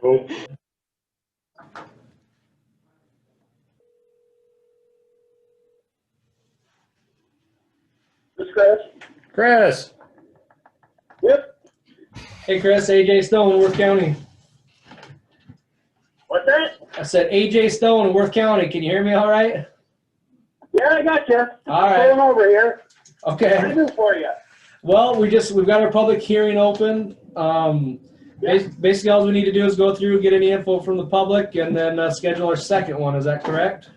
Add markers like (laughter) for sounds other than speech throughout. Cool. This Chris? Chris, Yep. Hey Chris, AJ Stone, Worth County. What's that? I said AJ Stone, Worth County. Can you hear me all right? Yeah, I got you. All right. Pulling over here. What can I Okay. do for you? Well, we just, we've got our public hearing open. Um, bas- basically, all we need to do is go through, get any info from the public and then uh, schedule our second one. Is that correct?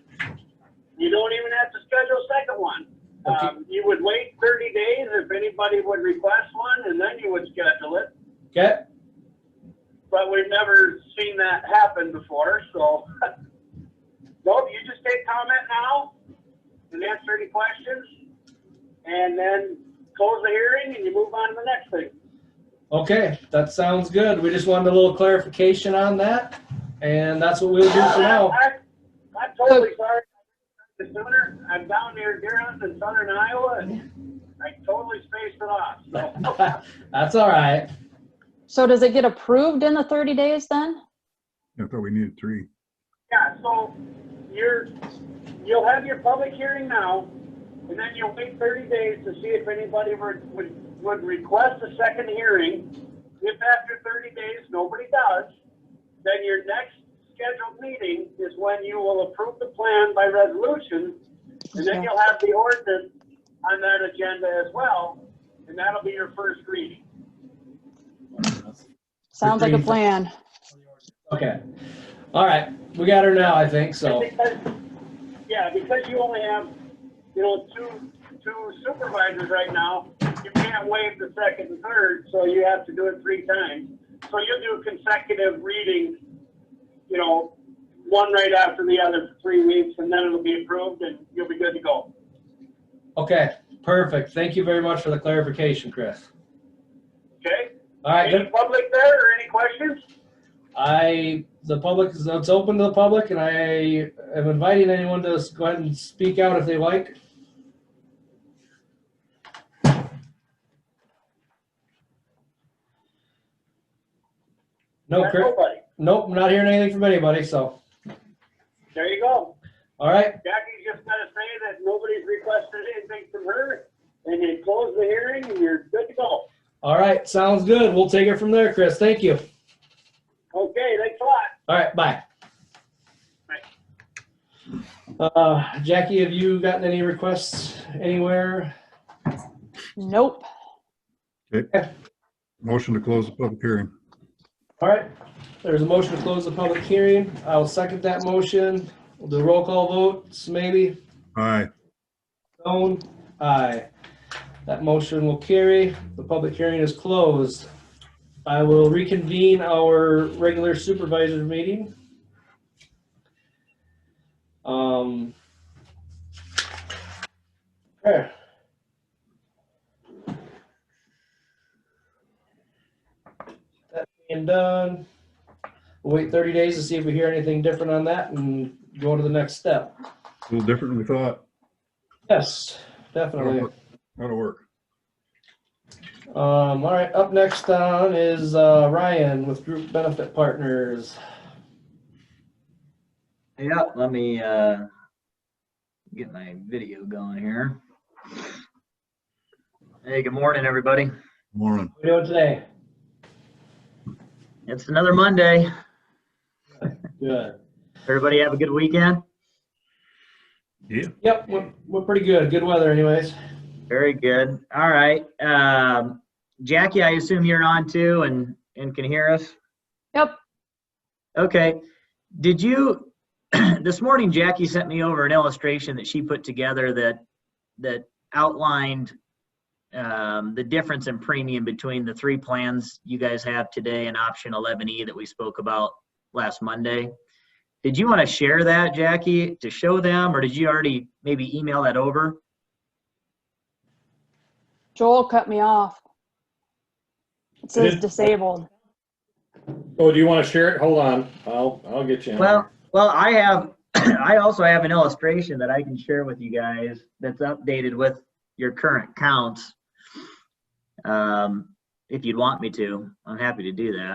You don't even have to schedule a second one. Okay. Um, you would wait thirty days if anybody would request one, and then you would schedule it. Okay. But we've never seen that happen before, so. (laughs) Nope, you just take comment now and answer any questions. And then close the hearing and you move on to the next thing. Okay. That sounds good. We just wanted a little clarification on that. And that's what we'll do for now. (laughs) I- I'm totally sorry. The sooner, I'm down near Deer Hunt in southern Iowa and I totally spaced it off. (laughs) So That's all right. So does it get approved in the 30 days then? I thought we needed three. Yeah, so you're, you'll have your public hearing now and then you'll wait thirty days to see if anybody would, would, would request a second hearing. If after thirty days, nobody does, then your next scheduled meeting is when you will approve the plan by resolution. And then Okay. you'll have the ordinance on that agenda as well, and that'll be your first reading. Sounds like a plan. Okay. All right. We got her now, I think. So, Because- Yeah, because you only have, you know, two, two supervisors right now, you can't waive the second and third, so you have to do it three times. So you'll do consecutive readings, you know, one right after the other for three weeks, and then it'll be approved and you'll be good to go. okay. Perfect. Thank you very much for the clarification, Chris. Okay? All right. Any Good. public there or any questions? I, the public, is it's open to the public and I am inviting anyone to go ahead and speak out if they like. No, Chris, Nobody. nope, I'm not hearing anything from anybody. So, There you go. all right. Jackie's just gotta say that nobody's requested anything from her, and you close the hearing and you're good to go. All right. Sounds good. We'll take it from there, Chris. Thank you. Okay, thanks a lot. All right. Bye. Uh, Jackie, have you gotten any requests anywhere? Nope. Motion to close the public hearing. All right, there's a motion to close the public hearing. I'll second that motion. We'll do a roll call vote. Maybe Aye. Stone, aye. That motion will carry. The public hearing is closed. I will reconvene our regular supervisor meeting. Um. okay. That being done, we'll wait 30 days to see if we hear anything different on that and go to the next step. A little different than we thought. Yes, definitely. That'll work. Um, all right, up next on is, uh, Ryan with Group Benefit Partners. Yeah, let me uh, get my video going here. Hey, good morning, everybody. Morning. What are we doing today? It's another Monday. Good. Everybody have a good weekend? Yeah. Yep, we're, we're pretty good. Good weather anyways. Very good. All right. Um, Jackie, I assume you're on too and, and can hear us? Yep. Okay. Did you, (clears throat) this morning Jackie sent me over an illustration that she put together that, that outlined um, the difference in premium between the three plans you guys have today and option 11E that we spoke about last Monday. Did you want to share that, Jackie, to show them, or did you already maybe email that over? Joel cut me off. It says disabled. Oh, do you want to share it? Hold on. I'll, I'll get you. in. Well, well, I have, (clears throat) I also have an illustration that I can share with you guys that's updated with your current counts. Um, if you'd want me to, I'm happy to do that.